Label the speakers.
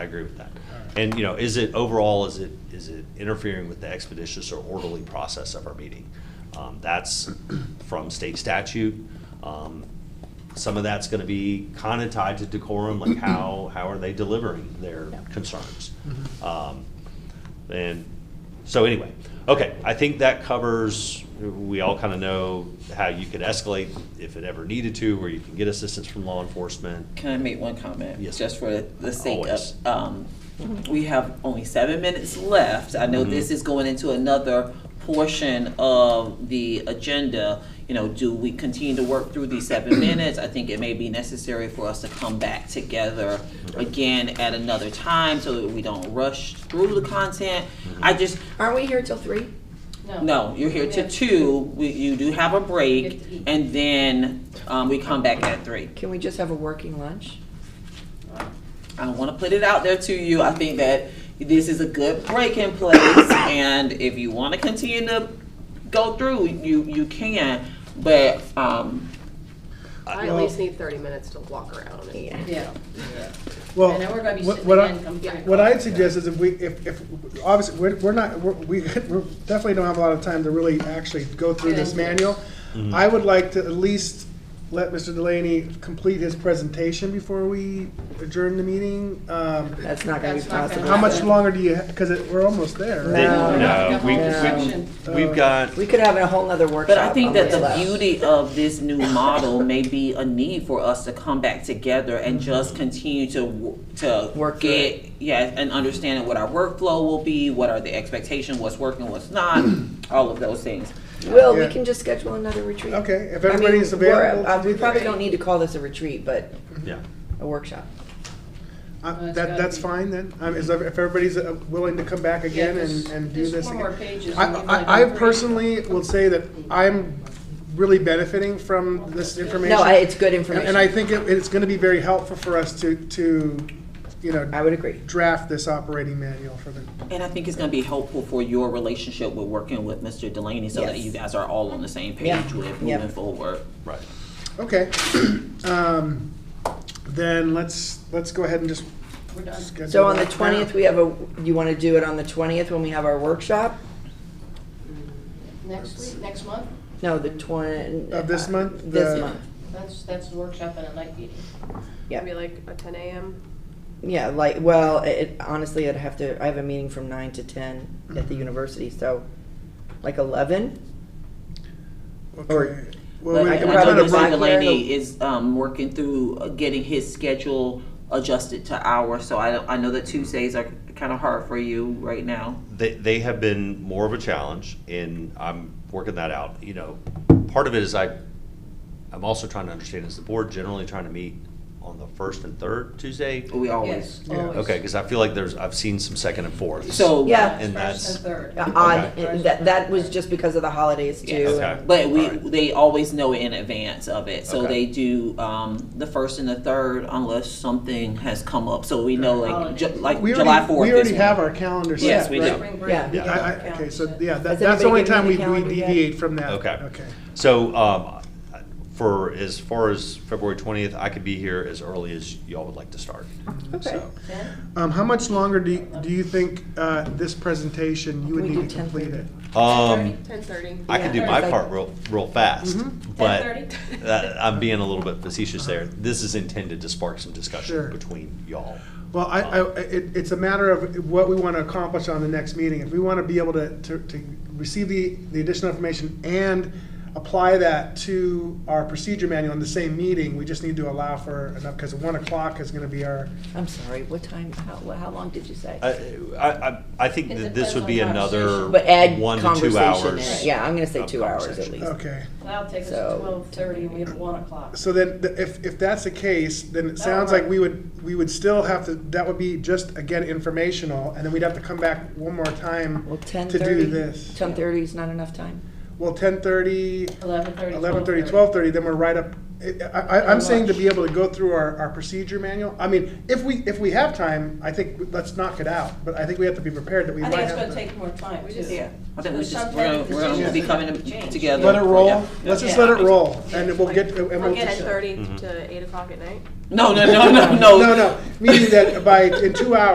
Speaker 1: I agree with that. And, you know, is it, overall, is it, is it interfering with the expeditious or orderly process of our meeting? Um, That's from state statute. Um, Some of that's gonna be kinda tied to decorum, like how, how are they delivering their concerns? Um, And, so anyway, okay, I think that covers, we all kinda know how you could escalate if it ever needed to, where you can get assistance from law enforcement.
Speaker 2: Can I make one comment?
Speaker 1: Yes.
Speaker 2: Just for the sake
Speaker 1: Always.
Speaker 2: of, um, we have only seven minutes left. I
Speaker 1: Mm-hmm.
Speaker 2: know this is going into another portion of the agenda. You know, do we continue to work through these seven minutes? I think it may be necessary for us to come back together again at another time so that we don't rush through the content.
Speaker 1: Mm-hmm.
Speaker 2: I just,
Speaker 3: Aren't we here till three?
Speaker 2: no, you're here to two, we, you do have a
Speaker 4: You
Speaker 2: break,
Speaker 4: have to eat.
Speaker 2: and then, um, we come back at three.
Speaker 3: Can we just have a working lunch?
Speaker 2: I want to put it out there to you. I think that this is a good breaking place, and if you want to continue to go through, you you can. But um,
Speaker 5: I at least need thirty minutes to walk around. and-
Speaker 4: Yeah,
Speaker 6: Well,
Speaker 4: and then we're gonna be
Speaker 6: what-
Speaker 4: sitting
Speaker 6: what I-
Speaker 4: again come three
Speaker 6: What
Speaker 4: o'clock.
Speaker 6: I'd suggest is if we, if, if, obviously, we're, we're not, we're- we, we definitely don't have a lot of time to really actually go through this
Speaker 4: Yeah.
Speaker 6: manual. I would like to at least let Mr. Delaney complete his presentation before we adjourn the meeting. Um,
Speaker 3: That's not gonna be
Speaker 4: That's not gonna
Speaker 3: possible.
Speaker 6: How much longer do you, because we're almost there. right?
Speaker 3: Then- No.
Speaker 1: No, we,
Speaker 4: No.
Speaker 1: we- we've got,
Speaker 3: We could have a whole nother workshop.
Speaker 2: but I think
Speaker 3: on
Speaker 2: that
Speaker 3: this
Speaker 2: the
Speaker 3: left.
Speaker 2: beauty of this new model may be a need for us to come back together and just continue to w- to
Speaker 3: Mm-hmm. Work through
Speaker 2: get yes and understanding what our workflow will be, what are the expectations, what's working, what's not, all of those things.
Speaker 3: Will, we
Speaker 6: Yeah.
Speaker 3: can just schedule another retreat.
Speaker 6: Okay, if
Speaker 3: I mean,
Speaker 6: everybody is
Speaker 3: we're-
Speaker 6: available to
Speaker 3: uh, We
Speaker 6: do
Speaker 3: probably
Speaker 6: that.
Speaker 3: don't need to call this a retreat, but
Speaker 1: yeah,
Speaker 3: a workshop.
Speaker 6: Uh,
Speaker 4: it's
Speaker 6: That,
Speaker 4: gotta
Speaker 6: that's
Speaker 4: be-
Speaker 6: fine then, Um, is, if everybody's uh, willing to come back again and, and do this
Speaker 4: There's four more
Speaker 6: again.
Speaker 4: pages.
Speaker 6: I,
Speaker 4: and we've only
Speaker 6: I, I
Speaker 4: done three.
Speaker 6: personally will say that I'm really benefiting from this information.
Speaker 3: No, I- it's good
Speaker 6: And
Speaker 3: information.
Speaker 6: and I think it, it's gonna be very helpful for us to, to, you
Speaker 3: I
Speaker 6: know,
Speaker 3: would agree.
Speaker 6: draft this operating manual for the,
Speaker 2: And I think it's gonna be helpful for your relationship with working with Mr. Delaney, so that
Speaker 3: Yes.
Speaker 2: you guys are all on the same
Speaker 3: Yeah.
Speaker 2: page with
Speaker 3: Yeah.
Speaker 2: moving forward.
Speaker 1: right.
Speaker 6: okay. Um, Then let's, let's go ahead and just
Speaker 4: We're done.
Speaker 6: schedule.
Speaker 3: So on the
Speaker 6: that now.
Speaker 3: twentieth, we have a, you wanna do it on the twentieth when we have our workshop?
Speaker 4: Next week, next month,
Speaker 3: No, the twen- uh,
Speaker 6: Of this month?
Speaker 3: This
Speaker 6: The-
Speaker 3: month,
Speaker 4: that's, that's the workshop and a night meeting.
Speaker 3: yeah.
Speaker 5: Maybe like a ten AM.
Speaker 3: Yeah, like, well, it, honestly, I'd have to, I have a meeting from nine to ten at
Speaker 1: Mm-hmm.
Speaker 3: the university, so like eleven?
Speaker 6: Okay. Well,
Speaker 2: But
Speaker 6: we
Speaker 2: I
Speaker 6: we
Speaker 3: can
Speaker 2: I know
Speaker 6: gotta
Speaker 3: probably
Speaker 2: Mr.
Speaker 3: block
Speaker 6: break,
Speaker 3: it.
Speaker 2: Delaney is, um, working through uh, getting his schedule adjusted to ours, so I, I know that Tuesdays are kinda hard for you right now.
Speaker 1: They, they have been more of a challenge and I'm working that out, you know. Part of it is I, I'm also trying to understand, is the board generally trying to meet on the first and third Tuesday?
Speaker 2: We always,
Speaker 4: Yes,
Speaker 6: Yeah.
Speaker 4: always.
Speaker 1: Okay, cause I feel like there's, I've seen some second and fourths.
Speaker 2: so.
Speaker 3: Yeah.
Speaker 1: And
Speaker 4: First
Speaker 1: that's-
Speaker 4: and third.
Speaker 3: Uh, Odd,
Speaker 1: Okay.
Speaker 3: and that, that was just because of the holidays too.
Speaker 2: Yes.
Speaker 1: Okay.
Speaker 2: But we,
Speaker 1: Alright.
Speaker 2: they always know in advance of it, so
Speaker 1: Okay.
Speaker 2: they do, um, the first and the third unless something has come up, so we know like, Ju- like
Speaker 6: we
Speaker 2: July
Speaker 6: already,
Speaker 2: fourth.
Speaker 6: we already have our calendar set,
Speaker 2: Yes, we
Speaker 6: right?
Speaker 2: do.
Speaker 4: Spring break.
Speaker 3: Yeah.
Speaker 6: I- I- Okay, so, yeah, that- that's
Speaker 3: Has
Speaker 6: the
Speaker 3: anybody
Speaker 6: only
Speaker 3: given
Speaker 6: time
Speaker 3: you
Speaker 6: we
Speaker 3: the
Speaker 6: we
Speaker 3: calendar yet?
Speaker 6: deviate from that.
Speaker 1: Okay.
Speaker 6: Okay.
Speaker 1: So, um, for, as far as February twentieth, I could be here as early as y'all would like to start.
Speaker 3: Okay.
Speaker 1: So,
Speaker 4: Then,
Speaker 6: Um, how much longer do, you- do you think, uh, this presentation, you would
Speaker 3: We do
Speaker 6: need to
Speaker 3: 10.
Speaker 6: complete it?
Speaker 1: Um,
Speaker 5: Ten thirty.
Speaker 1: I can do my
Speaker 3: Yeah. Mm-hmm.
Speaker 1: part real, real fast, but
Speaker 4: 10:30?
Speaker 1: that- Uh, I'm being a little bit facetious there. This is intended to spark some
Speaker 6: Sure.
Speaker 1: discussion between y'all.
Speaker 6: Well, I, I, it, it's a matter of what we want to accomplish on the next meeting. If we want to be able to, to, to receive the, the additional information and apply that to our procedure manual in the same meeting, we just need to allow for enough, because one o'clock is going to be our,
Speaker 3: I'm sorry, what time, how, wha- how long did you say?
Speaker 1: I, I, I- I think
Speaker 4: It
Speaker 1: that this
Speaker 4: depends
Speaker 1: would be
Speaker 4: on
Speaker 1: another
Speaker 4: conversation.
Speaker 3: But add
Speaker 1: one to two
Speaker 3: conversation in
Speaker 1: hours.
Speaker 3: it, yeah, I'm gonna say
Speaker 1: of
Speaker 3: two hours at
Speaker 1: conversation.
Speaker 3: least.
Speaker 6: okay.
Speaker 4: That'll take us to
Speaker 3: So-
Speaker 4: twelve thirty, and we have one o'clock.
Speaker 6: So then, the- if, if that's the case, then it sounds like we would, we would still have to, that would be just, again, informational, and then we'd have to come back one more time
Speaker 3: Well,
Speaker 6: to
Speaker 3: ten
Speaker 6: do
Speaker 3: thirty,
Speaker 6: this.
Speaker 3: ten thirty is not enough time?
Speaker 6: Well, ten thirty,
Speaker 4: Eleven thirty.
Speaker 6: eleven thirty, twelve thirty, then we're right up, I, I, I'm saying to be able to go through our, our procedure manual. I mean, if we, if we have time, I think, let's knock it out, but I think we have to be prepared that we
Speaker 4: I
Speaker 6: might
Speaker 4: think it's
Speaker 6: have
Speaker 4: gonna
Speaker 6: to.
Speaker 4: take more time,
Speaker 5: We
Speaker 4: too.
Speaker 5: just- Yeah.
Speaker 2: I think we just,
Speaker 4: Sometimes
Speaker 2: we're gonna,
Speaker 4: the
Speaker 2: we're gonna be
Speaker 4: decisions
Speaker 2: coming
Speaker 4: have to
Speaker 2: to-
Speaker 4: change.
Speaker 2: together.
Speaker 6: Let it roll,
Speaker 2: Yeah.
Speaker 6: let's just
Speaker 4: Yeah.
Speaker 6: let it roll, and we'll get, and
Speaker 5: From
Speaker 6: we'll.
Speaker 5: ten thirty to eight o'clock at night.
Speaker 2: No, no, no, no, no.
Speaker 6: No, no, meaning that by, in two hours.